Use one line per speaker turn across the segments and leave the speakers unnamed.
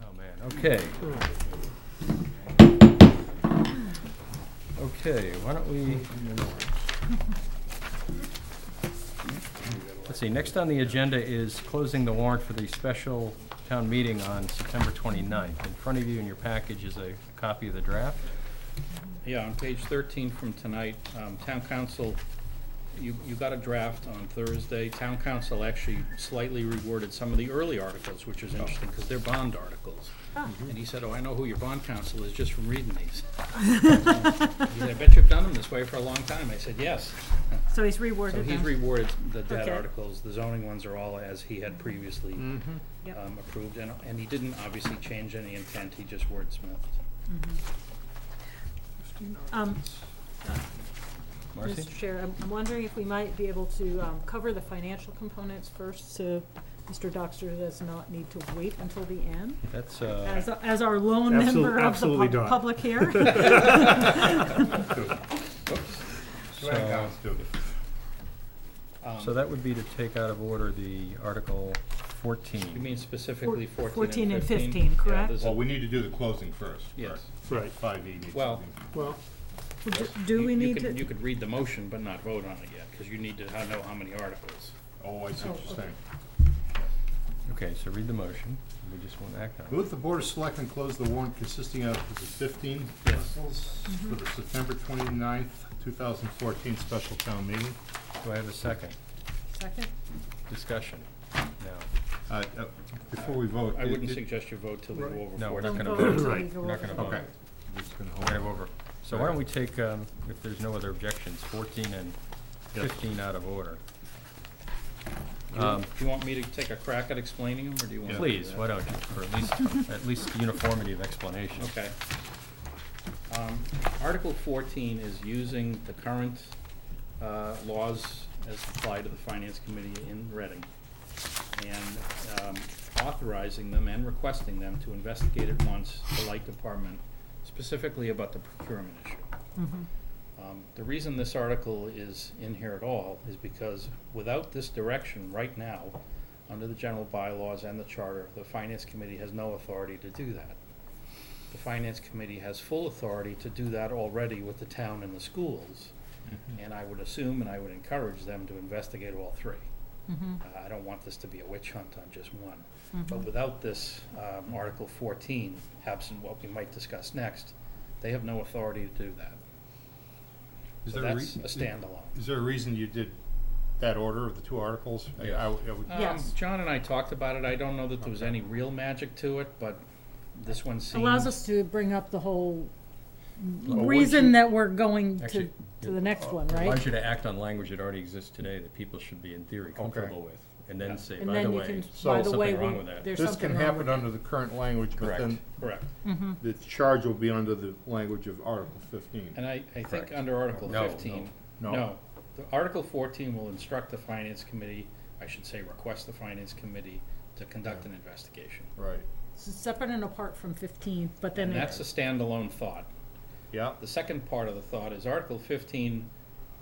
Oh, Okay. Okay, why don't we? Let's see, next on the agenda is closing the warrant for the special town meeting on September 29th. In front of you in your package is a copy of the draft.
Yeah, on page 13 from tonight, um, town council, you, you got a draft on Thursday. Town council actually slightly reworded some of the early articles, which is interesting, because they're bond articles.
Ah.
And he said, oh, I know who your bond counsel is just from reading these. He said, I bet you've done them this way for a long time. I said, yes.
So he's
So
reworded
he's
them.
reworded the debt
Okay.
articles. The zoning ones are all as he had previously
Yep.
um, approved, and, and he didn't obviously change any intent, he just wordsmithed.
Um,
Marcy?
Mr. Chair, I'm- I'm wondering if we might be able to um, cover the financial components first, so Mr. Doxter does not need to wait until the end,
That's, uh,
as, as our lone
Absolute-
member of the
absolutely
pub-
not.
public here.
so, so that would be to take out of order the Article
You
14.
mean specifically
Four-
fourteen and fifteen?
14 and 15,
Yeah,
correct?
there's a-
Well, we need to do the closing first.
Yes.
Right,
Five E needs to
Well,
be-
well,
Do- Do
you-
we
you
need
could- You
to,
could read the motion but not vote on it yet, because you need to ha- know how many articles.
Oh, I see what you're saying.
Okay, so read the motion. We just won't act on it.
Move the Board of Selectmen close the warrant consisting of is it fifteen
Yes.
articles
Mm-hmm.
for the September twenty-ninth, two thousand fourteen special town meeting.
Do I have a second?
second?
Discussion? No.
Uh, uh, Before we vote.
I
it-
wouldn't
it-
suggest you vote till we
Right.
go over
No, we're not
fourteen.
Don't
gonna
vote
vote.
until we
Right.
go
We're not
over
gonna
them.
vote.
Okay. We're just gonna hold
Right
it.
over. So why don't we take, um, if there's no other objections, 14 and 15 out of order? Um,
Do you want me to take a crack at explaining them, or do you want? me to do
Please,
that?
why don't you, for at least, at least uniformity of explanation.
Okay. Um, Article fourteen is using the current uh, laws as applied to the Finance Committee in Reading and um, authorizing them and requesting them to investigate at once the Light Department specifically about the procurement issue. Um, The reason this article is in here at all is because without this direction right now, under the general bylaws and the charter, the Finance Committee has no authority to do that. The Finance Committee has full authority to do that already with the town and the schools.
Mm-hmm.
And I would assume and I would encourage them to investigate all three.
Mm-hmm.
Uh, I don't want this to be a witch hunt on just one. But without this, um, Article fourteen, absent what we might discuss next, they have no authority to do that.
Is
So
there a
that's
rea-
a standalone.
Is there a reason you did that order of the two articles? I- I would- I would-
Um,
Yes.
John and I talked about it. I don't know that there was any real magic to it, but this one seems.
Allows us to bring up the whole
would
reason that we're going
Oh,
to,
Actually, uh,
to the next one,
It
right?
allows you to act on language that already exists today that people should be, in theory, comfortable with, and then say,
And
by the
then you
way,
can,
so
by the
something
way,
wrong
we-
with that.
there's
This
something
can
wrong with
happen under the current language, but
Correct.
then
Correct.
the charge will be under the language of Article fifteen.
And I, I think
Correct.
under Article
No, no,
fifteen.
no.
The Article fourteen will instruct the Finance Committee, I should say, request the Finance Committee to conduct an investigation.
Right,
It's Separate and apart from fifteen, but then
And
it-
that's a standalone thought.
yeah,
The second part of the thought is Article fifteen,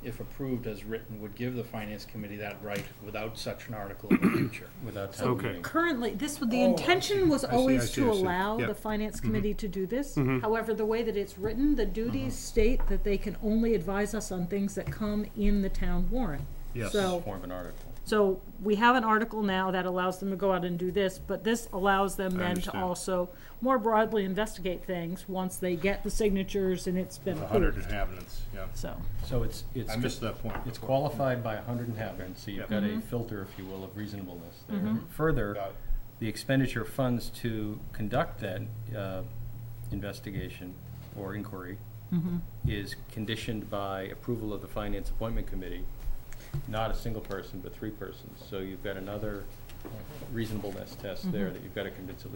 if approved as written, would give the Finance Committee that right without such an article in the future.
without town
Okay.
meeting.
currently, this, would- the
Oh, I
intention was
I see, I
always
see, Mm-hmm.
to
I see.
allow
Yeah.
the finance committee to do this. However, the way that it's written, the
Mm-hmm.
duties state that they can only advise us on things that come in the town warrant.
yes.
So,
Form an article.
so we have an article now that allows them to go out and do this, but this allows them then to
understand.
also more broadly investigate things once they get the signatures and it's been
A hundred
approved,
inhabitants, yeah.
so.
So it's, it's,
I missed that point.
it's qualified by 100 inhabitants, so you've
Yep.
got a filter, if you will, of reasonableness there. Further,
Got it.
the expenditure of funds to conduct that uh, investigation or inquiry is conditioned by approval of the Finance Appointment Committee, not a single person, but three persons. So you've got another reasonableness test there that you've got to convince at